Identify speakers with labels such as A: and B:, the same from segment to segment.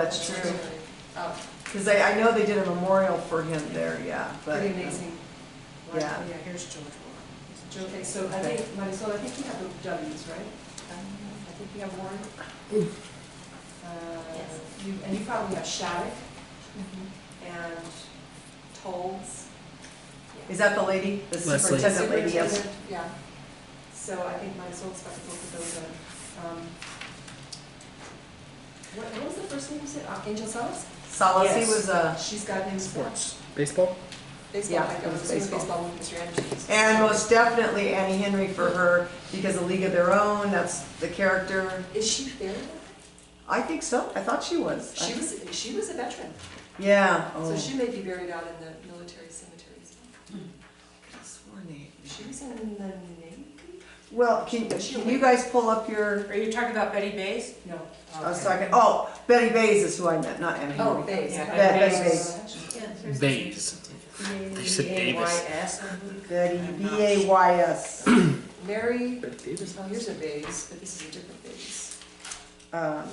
A: That's true,
B: Oh,
A: because I, I know they did a memorial for him there, yeah, but. um,
B: pretty amazing.
A: Yeah.
B: Yeah, here's George Warren. Okay, so I
A: Okay.
B: think, Marisol, I think you have the W's, right? Um, I think you have Warren. Uh,
C: Yes.
B: You, and you probably have Shattuck Mm-hmm. and Tolles.
A: Is that the lady, the
D: Leslie.
A: superintendent lady, yes?
B: Superintendent, Yeah. So I think Marisol's got both of those on. Um, What, what was the first name you said? Uh, Angel Salas?
A: Solacey
B: Yes.
A: was uh, a,
B: She's got him.
D: Sports. Baseball?
B: Baseball,
A: Yeah,
B: I
A: it
B: was
A: was
B: assuming
A: baseball.
B: baseball with Mr. Anderson.
A: and most definitely Annie Henry for her, because of League of Their Own, that's the character.
B: Is she buried?
A: I think so, I thought she was.
B: She was, she was a veteran,
A: Yeah.
B: so
A: Oh.
B: she may be buried out in the military cemeteries.
A: Could've sworn they-
B: She was in the Navy?
A: Well, can, can you guys pull up your,
C: Are you talking about Betty Bays?
B: No.
A: I was talking, oh, Betty Bays is who I meant, not Annie
B: Oh,
A: Henry.
B: Bays.
C: Yeah,
A: Betty
D: Bays. They said Davis.
C: B-A-Y-S.
A: Betty, B A Y S,
B: Mary,
D: Betty Davis?
B: oh, here's a Bays, but this is a different Bays.
A: um,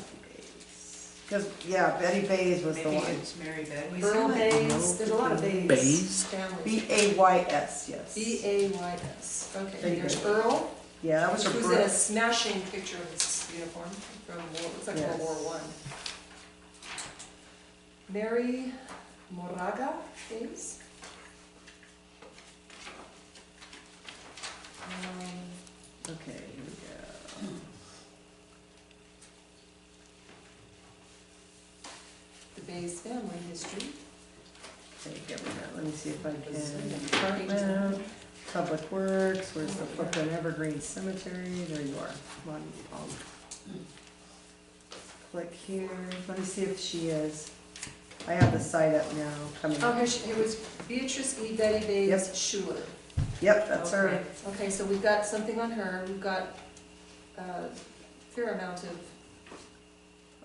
A: because, yeah, Betty Bays was the
C: Maybe
A: one.
C: it's Mary Bays.
B: Earl
A: might
B: Bays,
A: know
B: there's a lot of Bays.
D: Bays?
B: Families.
A: B A Y S, yes.
B: B A Y S,
A: There
B: okay,
A: you
B: there's
A: go.
B: Earl,
A: Yeah, that was her
B: who's in a
A: birth.
B: smashing picture of his uniform from, World- it looks like World
A: Yes.
B: War One. Mary Moraga Bays. Um,
A: Okay, here we
B: The Bayes family history.
A: go. Okay, here we go. Let me see if I can.
B: Department.
A: Public Works, where's
B: Oh,
A: the Brooklyn Evergreen Cemetery? There you are. Come on, I'll click here. Let me see if she is. I have the site up now, coming
B: Oh,
A: up.
B: here she, it was Beatrice E. Betty Bayes Schuler.
A: Yep, that's her.
C: Okay.
B: Okay, so we've got something on her, we've got uh, fair amount of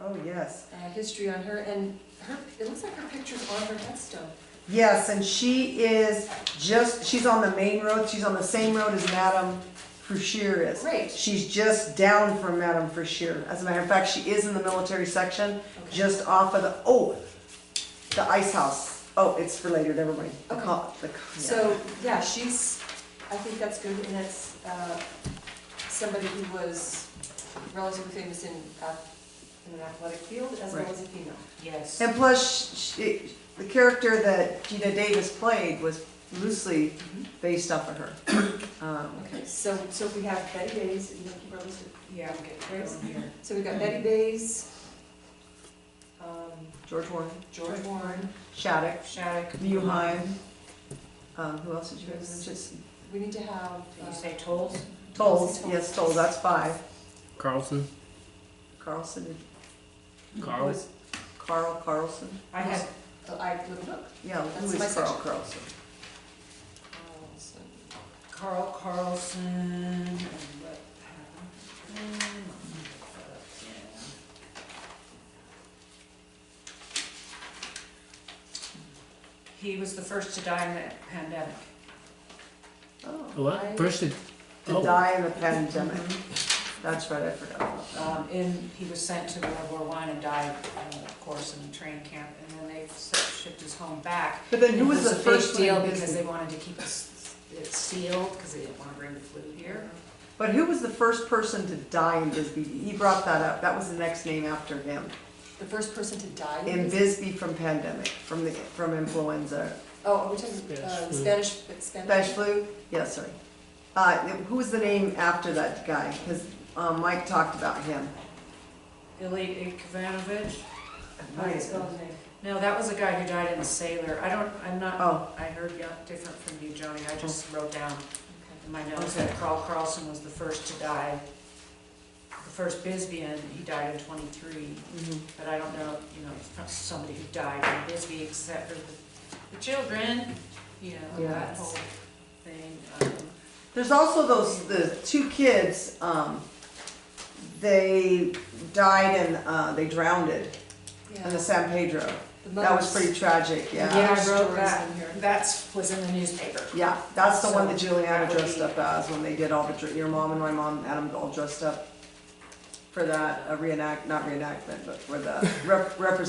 A: Oh, yes.
B: uh, history on her, and her, it looks like her picture's on her headstone.
A: Yes, and she is just, she's on the main road. She's on the same road as Madame Fouchier is.
B: Great,
A: She's just down from Madame Frischier. As a matter of fact, she is in the military section,
B: Okay.
A: just off of the, oh, the ice house. Oh, it's for later, never mind. The
B: Okay.
A: co- the co- yeah.
B: so, yeah, she's, I think that's good, and that's uh, somebody who was relatively famous in, ath- in an athletic field as well
A: Right.
B: as a female.
C: Yes.
A: And plus, sh- she, the character that Gina Davis played was loosely
C: Mm-hmm.
A: based off of her. Um,
B: Okay, so, so we have Betty Bayes, you know, keep our list of-
C: Yeah.
B: Grace?
C: Here.
B: So we've got Betty Bays, um,
A: George Warren,
B: George Warren,
A: Shattuck,
C: Shattuck.
A: Muheim, um, who else did you
B: Yes.
A: guys mention?
B: we need to have,
C: Did you
B: uh,
C: say tolls?
A: Tolls, yes, Tolls, that's five.
D: Carlson?
A: Carlson, who
D: Carl?
A: is Carl Carlson?
C: I had,
B: uh, I, Little Book.
A: Yeah,
B: That's
A: who
B: my
A: is Carl
B: section.
A: Carlson?
B: Carlson.
C: Carl Carlson and what? He was the first to die in the pandemic.
A: Oh,
D: What? First, it-
A: to
D: Oh.
A: die in the pandemic. That's right, I forgot about that.
C: Um, in, he was sent to World War One and died, uh, of course, in a train camp, and then they s- shipped his home back.
A: But then who
C: It
A: was the
C: a
A: first
C: big
A: one?
C: deal
A: in
C: because they
A: Disney?
C: wanted to keep it s- it sealed, because they didn't want to bring the flu here.
A: But who was the first person to die in Bisbee? He brought that up. That was the next name after him.
B: The first person to die?
A: In
B: is-
A: Bisbee from pandemic, from the, from influenza.
B: Oh, are we talking, uh,
D: Spanish
B: Spanish,
A: Spanish
B: Spanish?
A: flu? Yeah, sorry. Uh, who was the name after that guy? Because, um, Mike talked about him.
C: Ilya Ivanovich?
B: How do you spell his name?
C: No, that was a guy who died in a sailor. I don't, I'm not,
A: Oh,
C: I heard yeah, different from you, Joni. I just wrote down
B: Okay.
C: in my notes that Carl Carlson was the first to die. The first Bisbeean, he died in twenty-three,
A: mhm.
C: but I don't know, you know, it's not somebody who died in Bisbee except for the, the children, you know, that
A: Yes.
C: whole thing. um,
A: There's also those, the two kids, um, they died and, uh, they drowned it in the
B: Yeah.
A: San Pedro.
B: The
A: That was
B: mother's-
A: pretty tragic, yeah.
C: Yeah, I
B: Other
C: wrote
B: stories
C: that.
B: in here.
C: That was in the newspaper.
A: Yeah, that's the one that
C: So,
A: Juliana
C: that would
A: dressed
C: be-
A: up as when they did all the, dr- your mom and my mom, Adam all uh, dressed up for that, a reenact, not reenactment, but for the rep- representation